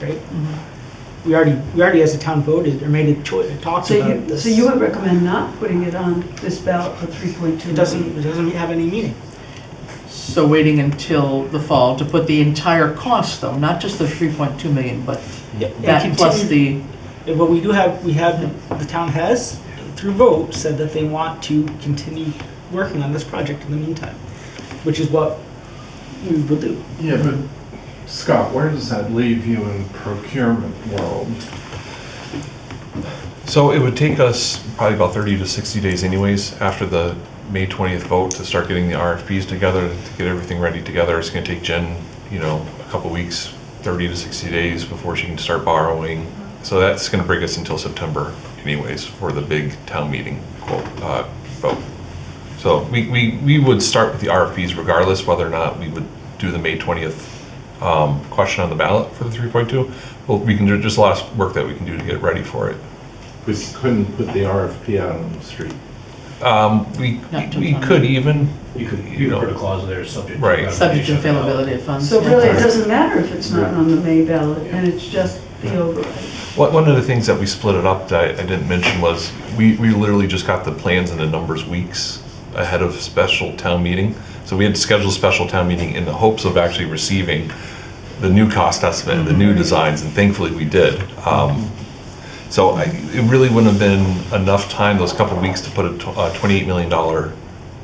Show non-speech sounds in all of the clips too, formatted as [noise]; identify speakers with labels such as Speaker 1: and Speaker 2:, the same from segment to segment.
Speaker 1: right? We already, we already as a town voted or made a choice, talked
Speaker 2: So
Speaker 1: about
Speaker 2: you,
Speaker 1: this.
Speaker 2: so you would recommend not putting it on this ballot for 3.2?
Speaker 1: It doesn't, it doesn't have any meaning.
Speaker 3: So waiting until the fall to put the entire cost though, not just the 3.2 million, but
Speaker 1: It- it
Speaker 3: that plus
Speaker 1: continue-
Speaker 3: the,
Speaker 1: Yeah, But we do have, we have, the town has, through vote, said that they want to continue working on this project in the meantime, which is what we will do.
Speaker 4: Yeah, but Scott, where does that leave you in procurement world?
Speaker 5: So it would take us probably about 30 to 60 days anyways, after the May 20th vote, to start getting the RFPs together, to get everything ready together. It's going to take Jen, you know, a couple weeks, 30 to 60 days before she can start borrowing. So that's going to bring us until September anyways, for the big town meeting quote, uh, vote. So we, we, we would start with the RFPs regardless whether or not we would do the May 20th um, question on the ballot for the 3.2. Well, we can, do just a lot of work that we can do to get ready for it.
Speaker 4: We couldn't put the RFP out on the street.
Speaker 5: Um, we,
Speaker 3: Not to
Speaker 5: we
Speaker 3: fund.
Speaker 5: could even,
Speaker 6: You could,
Speaker 5: You
Speaker 6: you could
Speaker 5: know.
Speaker 6: put a clause there, subject to.
Speaker 5: Right.
Speaker 6: ratification
Speaker 3: subject to
Speaker 6: of the ballot.
Speaker 3: availability of funds.
Speaker 2: So
Speaker 3: yeah.
Speaker 2: really, it doesn't matter if it's not
Speaker 4: Right.
Speaker 2: on the May ballot, and it's just the override.
Speaker 5: one one of the things that we split it up that I, I didn't mention was, we, we literally just got the plans and the numbers weeks ahead of special town meeting. So we had scheduled special town meeting in the hopes of actually receiving the new cost estimate, the
Speaker 3: Mm-hmm.
Speaker 5: new designs, and thankfully we did. Um, so I, it really wouldn't have been enough time, those couple weeks, to put a tw- a $28 million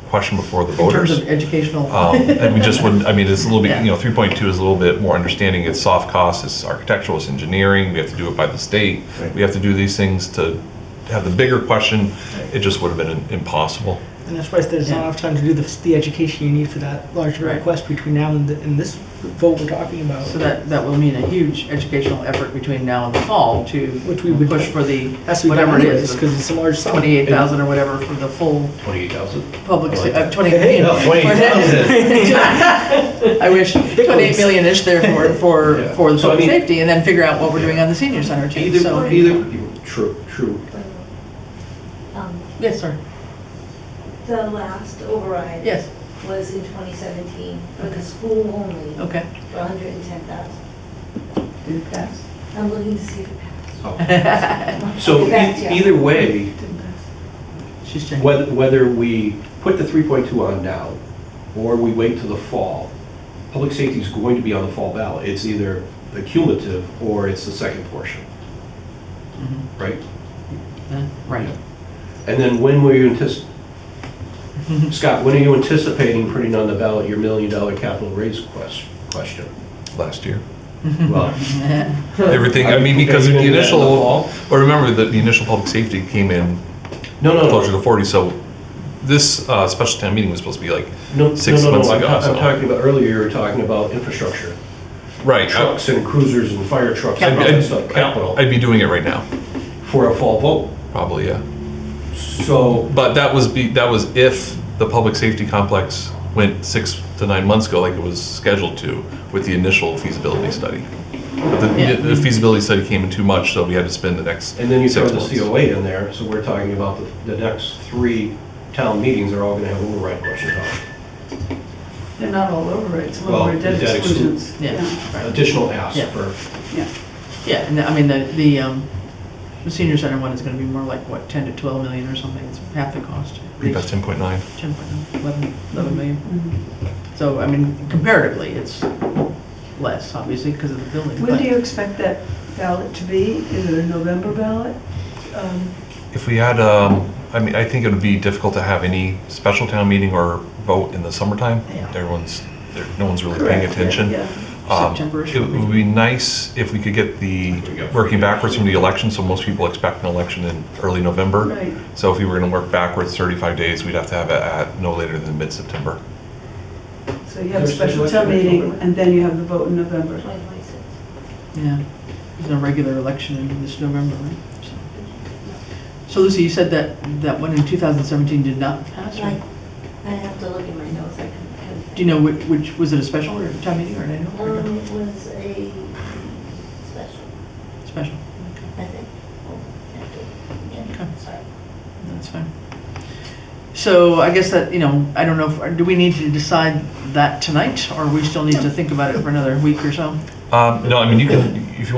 Speaker 5: question before the
Speaker 3: In
Speaker 5: voters.
Speaker 3: terms of educational.
Speaker 5: Um, And we just wouldn't, I mean, it's a little bit,
Speaker 3: Yeah.
Speaker 5: you know, 3.2 is a little bit more understanding, it's soft costs, it's architectural, it's engineering, we have to do it by the state.
Speaker 4: Right.
Speaker 5: We have to do these things to have the bigger question, it just would have been im- impossible.
Speaker 1: And that's why there's not enough time to do the, the education you need for that larger
Speaker 3: Right.
Speaker 1: request between now and, the- and this vote we're talking about.
Speaker 3: [laughs] So that, that will mean a huge educational effort between now and the fall to
Speaker 1: Which we would-
Speaker 3: push for the,
Speaker 1: Has to be
Speaker 3: whatever
Speaker 1: done
Speaker 3: it
Speaker 1: anyways,
Speaker 3: is,
Speaker 1: because it's a large sum.
Speaker 3: 28,000 or whatever for the full
Speaker 6: 28,000?
Speaker 3: public,
Speaker 6: I
Speaker 3: se-
Speaker 6: like
Speaker 3: uh,
Speaker 6: that.
Speaker 3: 20
Speaker 1: Hey,
Speaker 3: million.
Speaker 6: no,
Speaker 3: [laughs]
Speaker 6: [laughs]
Speaker 3: 28,000. [laughs] I wish, 28 million-ish there for, for,
Speaker 6: Yeah.
Speaker 3: for the
Speaker 6: So, I
Speaker 3: public
Speaker 6: mean-
Speaker 3: safety, and then figure out what we're doing on the senior center [laughs] too, so.
Speaker 6: Either, either, true,
Speaker 3: [laughs]
Speaker 6: true.
Speaker 7: Um,
Speaker 3: Yes, sir,
Speaker 7: The last override
Speaker 3: yes,
Speaker 7: was in 2017 for the school only for
Speaker 3: okay.
Speaker 7: 110,000.
Speaker 2: Did it pass?
Speaker 7: I'm looking to see if it passed. I'll
Speaker 3: [laughs]
Speaker 6: So
Speaker 7: get back
Speaker 6: e-
Speaker 7: to you.
Speaker 6: either way,
Speaker 2: Didn't pass.
Speaker 3: She's checking.
Speaker 6: whether, whether we put the 3.2 on now, or we wait till the fall, public safety is going to be on the fall ballot. It's either the cumulative, or it's the second portion,
Speaker 3: Mhm.
Speaker 6: right?
Speaker 3: Uh, Right.
Speaker 6: And then when were you antici,
Speaker 3: Mm-hmm.
Speaker 6: Scott, when are you anticipating putting on the ballot your million-dollar capital raise quest- question?
Speaker 5: Last year.
Speaker 6: Well,
Speaker 5: Everything, I mean, because the initial, but remember that the initial public safety came in
Speaker 6: No, no, no.
Speaker 5: closer to 40, so this uh, special town meeting was supposed to be like,
Speaker 6: No, no,
Speaker 5: six
Speaker 6: no, no,
Speaker 5: months
Speaker 6: I'm
Speaker 5: ago,
Speaker 6: ta- I'm
Speaker 5: so-
Speaker 6: talking about, earlier you were talking about infrastructure,
Speaker 5: right. I-
Speaker 6: trucks and cruisers and fire trucks and all
Speaker 5: I'd-
Speaker 6: that
Speaker 5: I'd-
Speaker 6: stuff, capital,
Speaker 5: I'd be doing it right now,
Speaker 6: for a fall vote.
Speaker 5: probably, yeah.
Speaker 6: So,
Speaker 5: But that was be, that was if the public safety complex went six to nine months ago, like it was scheduled to, with the initial feasibility study. But
Speaker 3: Yeah.
Speaker 5: the, the feasibility study came in too much, so we had to spend the next
Speaker 6: and then you throw
Speaker 5: six
Speaker 6: the
Speaker 5: months.
Speaker 6: COA in there, so we're talking about the, the next three town meetings are all gonna have override questions on it.
Speaker 2: They're not all overrides, some of
Speaker 6: Well,
Speaker 2: them are dead
Speaker 6: the debt exclu-
Speaker 2: exclusions.
Speaker 3: Yeah, right.
Speaker 6: Additional asks
Speaker 3: Yeah.
Speaker 6: for,
Speaker 2: Yeah.
Speaker 3: Yeah, and I mean, the, the, um, the senior center one is gonna be more like, what, 10 to 12 million or something, it's half the cost.
Speaker 5: I think About ten point nine.
Speaker 3: 10, 11, 11 million. So, I mean, comparatively, it's less, obviously, because of the building.
Speaker 2: When
Speaker 3: but-
Speaker 2: do you expect that ballot to be? Is it a November ballot? Um,
Speaker 5: If we had, um, I mean, I think it would be difficult to have any special town meeting or vote in the summertime.
Speaker 3: Yeah.
Speaker 5: Everyone's, there- no one's really
Speaker 2: correct,
Speaker 5: paying
Speaker 2: yeah,
Speaker 5: attention.
Speaker 2: yeah.
Speaker 5: Um,
Speaker 3: September-ish
Speaker 5: It would be nice if we could get the, working backwards from the election, so most people expect an election in early November.
Speaker 2: Right.
Speaker 5: So if we were gonna work backwards thirty-five days, we'd have to have it at no later than mid-September.
Speaker 2: So you have a
Speaker 6: There's an
Speaker 2: special
Speaker 6: election
Speaker 2: town
Speaker 6: in
Speaker 2: meeting,
Speaker 6: October.
Speaker 2: and then you have the vote in November.
Speaker 7: 2026.
Speaker 3: Yeah, there's no regular election in this November, right? So- So Lucy, you said that, that one in 2017 did not pass,
Speaker 7: Like,
Speaker 3: right?
Speaker 7: I have to look in my notes, I can.
Speaker 3: Do you know which, which, was it a special or a town meeting or an
Speaker 7: Um,
Speaker 3: annual?
Speaker 7: it was a special,
Speaker 3: Special,
Speaker 7: I think. Oh, I have to- yeah,
Speaker 3: Okay.
Speaker 7: sorry.
Speaker 3: that's fine. So I guess that, you know, I don't know, if- do we need to decide that tonight, or we still need to think about it for another week or so?
Speaker 5: Um, no, I mean, you can, if you